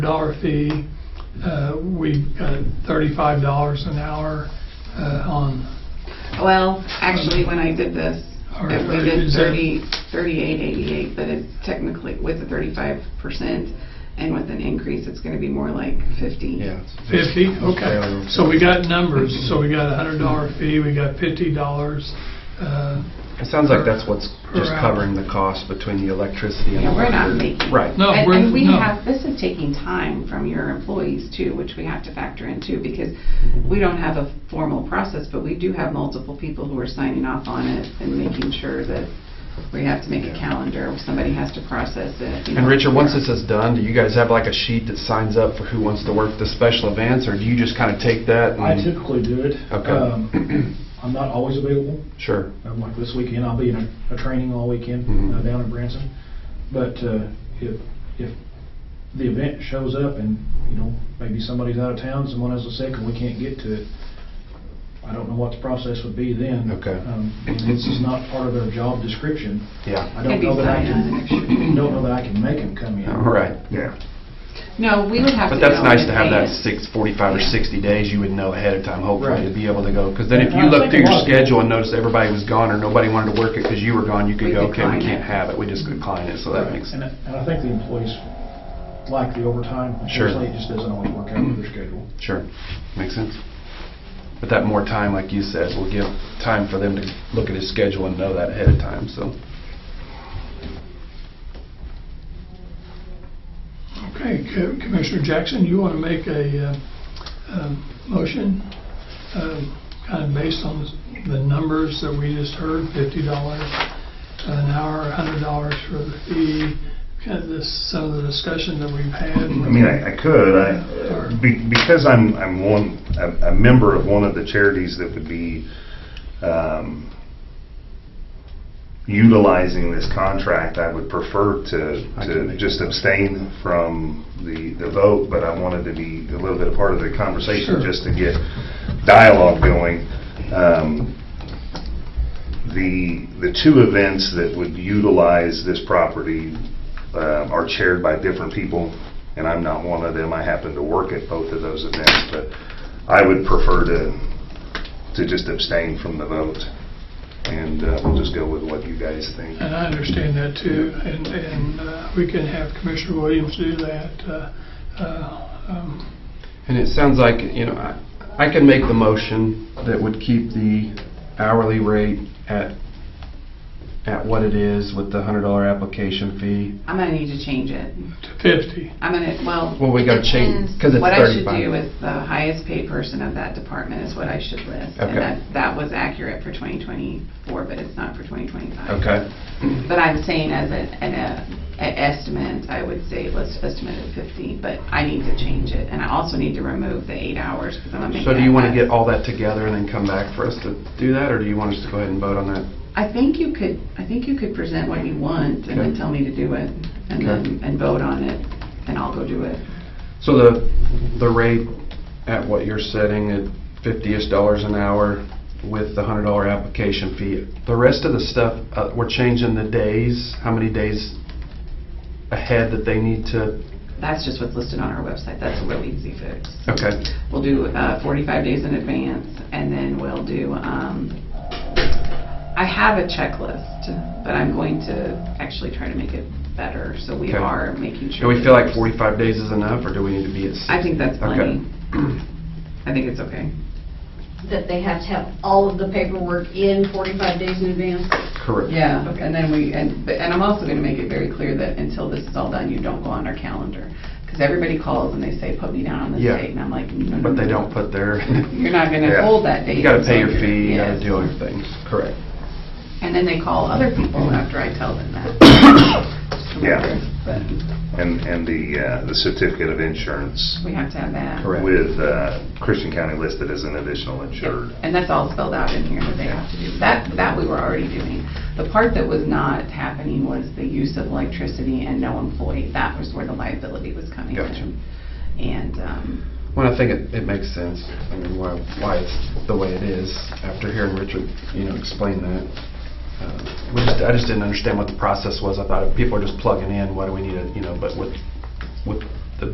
dollar fee. Uh, We got thirty-five dollars an hour uh, on, Well, actually, when I did this, Or it- we did is that- 30, 3888, but it's technically with the 35% and with an increase, it's going to be more like 50. Yeah. 50, okay. So we got numbers, so we got a hundred dollar fee, we got fifty dollars. Uh, It sounds like that's what's Per just hour. covering the cost between the electricity and the Yeah, we're not water. making. Right. No, And- we're- And we no. have, this is taking time from your employees too, which we have to factor in too, because we don't have a formal process, but we do have multiple people who are signing off on it and making sure that we have to make a Yeah. calendar, somebody has to process it. you And know, Richard, once yeah. this is done, do you guys have like a sheet that signs up for who wants to work the special events, or do you just kind of take that? I and- typically do it. Okay. Um, I'm not always available. Sure. Um, Like this weekend, I'll be in a, a training all weekend Mhm. uh, down in Branson. But uh, if, if the event shows up and, you know, maybe somebody's out of town, someone has a sick and we can't get to it, I don't know what the process would be then. Okay. Um, This is not part of their job description. Yeah. I don't know that I Maybe sign can, don't know that I can make them come in. All right. Yeah. No, we would have to. But that's know in nice to have that advance. six, 45 or 60 days, you would know ahead of time, hopefully, Right. to be able to go. Because then if And you I look think through a your lot of- schedule and notice everybody was gone or nobody wanted to work it because you were gone, you could We go, okay, we decline it. can't have it, we just decline it, so that Right. makes And I and I think the employees like the overtime. Sure. Unfortunately, it just doesn't always work out with their schedule. Sure, makes sense. But that more time, like you said, will give time for them to look at his schedule and know that ahead of time, so. Okay, Co- Commissioner Jackson, you want to make a uh, um, motion, kind of based on the numbers that we just heard, fifty dollars an hour, a hundred dollars for the fee, kind of this, some of the discussion that we've had. I mean, I, I could, I, be- because I'm, I'm one, a, a member of one of the charities that would be, um, utilizing this contract, I would prefer to, I can to make just that. abstain from the, the vote, but I wanted to be a little bit a part of the Sure. conversation, just to get dialogue going. Um, The, the two events that would utilize this property um, are chaired by different people, and I'm not one of them. I happen to work at both of those events, but I would prefer to, to just abstain from the vote, and uh, we'll just go with what you guys think. And I understand that too, and, and uh, we can have Commissioner Williams do that. uh, uh, um, And it sounds like, you know, I I can make the motion that would keep the hourly rate at, at what it is with the $100 application fee. I'm gonna need to change it. To fifty. I'm gonna, well. Well, we gotta change, depends. because it's 35. What I should do is the highest paid person of that department is what I should list. Okay. And that, that was accurate for 2024, but it's not for 2025. Okay, But I'm saying as an, an uh, an estimate, I would say let's estimate at 50, but I need to change it. And I also need to remove the eight hours because I'm gonna make that. so do you want to cut. get all that together and then come back for us to do that, or do you want us to go ahead and vote on that? I think you could, I think you could present what you want and then Okay. tell me to do it and Okay. then, and vote on it and I'll go do it. So the, the rate at what you're setting at fifty-ish dollars an hour with the hundred dollar application fee, the rest of the stuff, uh, we're changing the days, how many days ahead that they need to, That's just what's listed on our website. That's a real easy fix. okay, We'll do uh, 45 days in advance, and then we'll do, um, I have a checklist, but I'm going to actually try to make it better, so we Okay. are making sure. do we that feel like there's- forty-five days is enough, or do we need to be at? I think that's Okay. plenty. I think it's okay. that they have to have all of the paperwork in 45 days in advance? Correct. Yeah, Okay. and then we, and, but- and I'm also going to make it very clear that until this is all done, you don't go on our calendar, because everybody calls and they say, put me down on this Yeah. date, and I'm like, no, no, But they no. don't put their, You're not going to Yeah. hold that date. you gotta pay your until you're- fee, you gotta Yes. do everything, correct. And then they call other people after I tell them that. Yeah. But And, and the, uh, the certificate of insurance we have to have that. Correct. with uh, Christian County listed as an additional insured. Yeah, And that's all spelled out in here that they have to do. That, that we were already doing. The part that was not happening was the use of electricity and no employee. That was where the liability was coming Gotcha. in. And, um, Well, I think it, it makes sense. I mean, why, why it's the way it is after hearing Richard, you know, explain that. Uh, We just, I just didn't understand what the process was. I thought if people are just plugging in, why do we need it, you know, but with, with